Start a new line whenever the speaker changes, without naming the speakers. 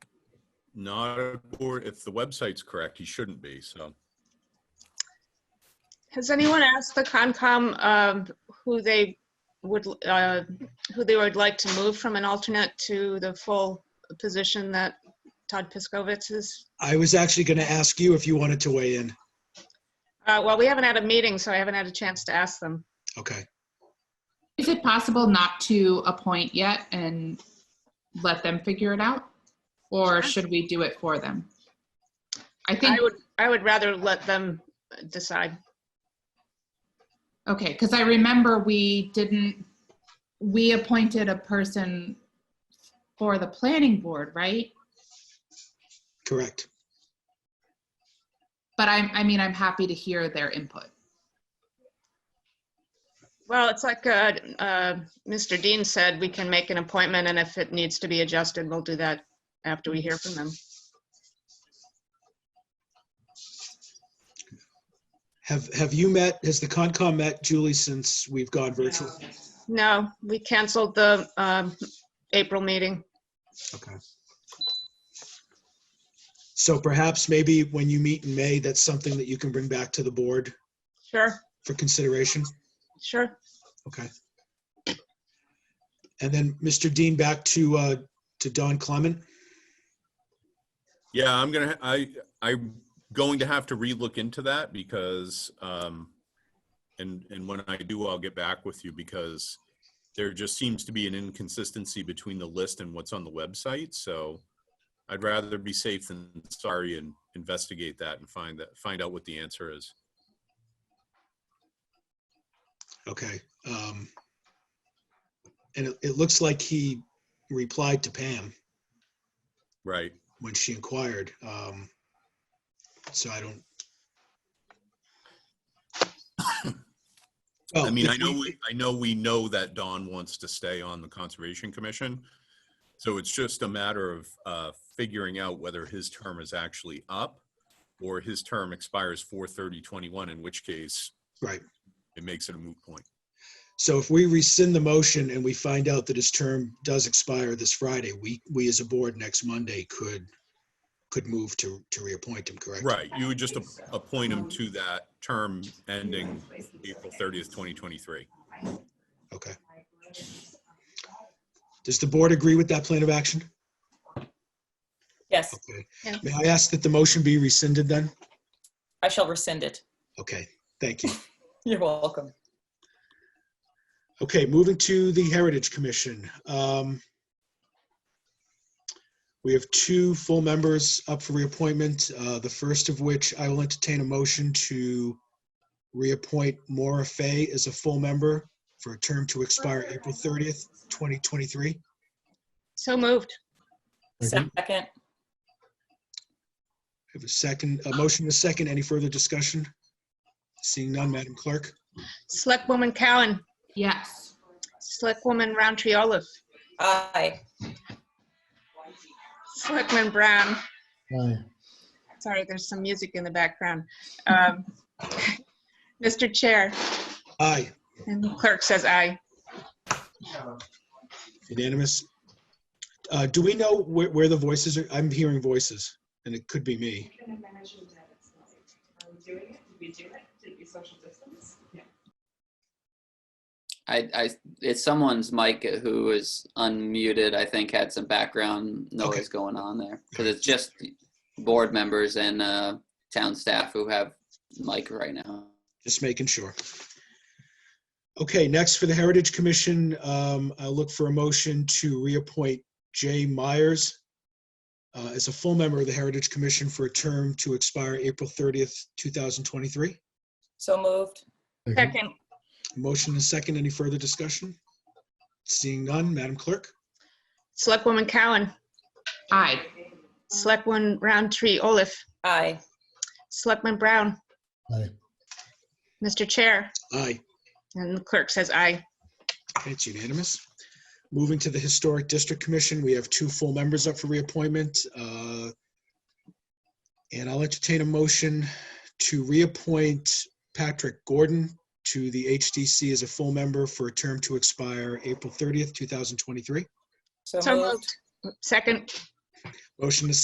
Not according, if the website's correct, he shouldn't be, so.
Has anyone asked the Concom um, who they would, uh, who they would like to move from an alternate to the full position that Todd Piskovitz is?
I was actually going to ask you if you wanted to weigh in.
Uh, Well, we haven't had a meeting, so I haven't had a chance to ask them.
Okay.
Is it possible not to appoint yet and let them figure it out? Or should we do it for them? I think,
I would, I would rather let them decide.
okay, because I remember we didn't, we appointed a person for the planning board, right?
Correct.
But I'm, I mean, I'm happy to hear their input.
Well, it's like uh, uh, Mr. Dean said, we can make an appointment, and if it needs to be adjusted, we'll do that after we hear from them.
Have, have you met, has the Concom met, Julie, since we've gone virtual?
No, we canceled the um, April meeting.
Okay. So perhaps maybe when you meet in May, that's something that you can bring back to the board
Sure,
for consideration?
sure.
Okay. And then, Mr. Dean, back to, uh, to Don Clement.
Yeah, I'm gonna, I, I'm going to have to relook into that because, um, and, and when I do, I'll get back with you because there just seems to be an inconsistency between the list and what's on the website, so I'd rather be safe than sorry and investigate that and find that, find out what the answer is.
Okay. um, And it, it looks like he replied to Pam
Right,
when she inquired. um, So I don't.
I mean, I
Well,
know, Oh, we- I know we know that Don wants to stay on the Conservation Commission. So it's just a matter of uh, figuring out whether his term is actually up or his term expires 4/30/21, in which case
Right.
it makes it a moot point.
So if we rescind the motion and we find out that his term does expire this Friday, we, we as a board next Monday could, could move to, to reappoint him, correct?
Right, you would just ap- appoint him to that term ending April 30th, 2023.
Okay. Does the board agree with that plan of action?
Yes,
Okay.
Yeah.
May I ask that the motion be rescinded then?
I shall rescind it.
Okay, thank you.
You're welcome.
Okay, moving to the Heritage Commission. Um, We have two full members up for reappointment, uh, the first of which I will entertain a motion to reappoint Maura Fay as a full member for a term to expire April 30th, 2023.
So moved.
Second,
I have a second, a motion and a second. Any further discussion? Seeing none, Madam Clerk?
Selectwoman Cowan,
Yes.
Selectwoman Roundtree Olaf,
aye.
Selectman Brown.
Aye.
Sorry, there's some music in the background. Um, Mr. Chair,
Aye,
and the clerk says aye.
unanimous. Uh, Do we know where where the voices are? I'm hearing voices, and it could be me.
Can I mention that it's not, are we doing it? Did we do it? Did we social distance? Yeah.
I, I, it's someone's mic who is unmuted, I think had some background
Okay.
noise going on there. Cause it's just board members and, uh, town staff who have mic right now.
Just making sure. Okay, next for the Heritage Commission, um, I'll look for a motion to reappoint Jay Myers uh, as a full member of the Heritage Commission for a term to expire April 30th, 2023.
So moved.
Second,
Motion and second. Any further discussion? Seeing none, Madam Clerk?
Selectwoman Cowan,
Aye.
Selectwoman Roundtree Olaf,
Aye.
Selectman Brown,
Aye.
Mr. Chair,
Aye.
and the clerk says aye.
It's unanimous. Moving to the Historic District Commission, we have two full members up for reappointment. uh, And I'll entertain a motion to reappoint Patrick Gordon to the HDC as a full member for a term to expire April 30th, 2023.
So
So
moved.
moved. Second,
Motion is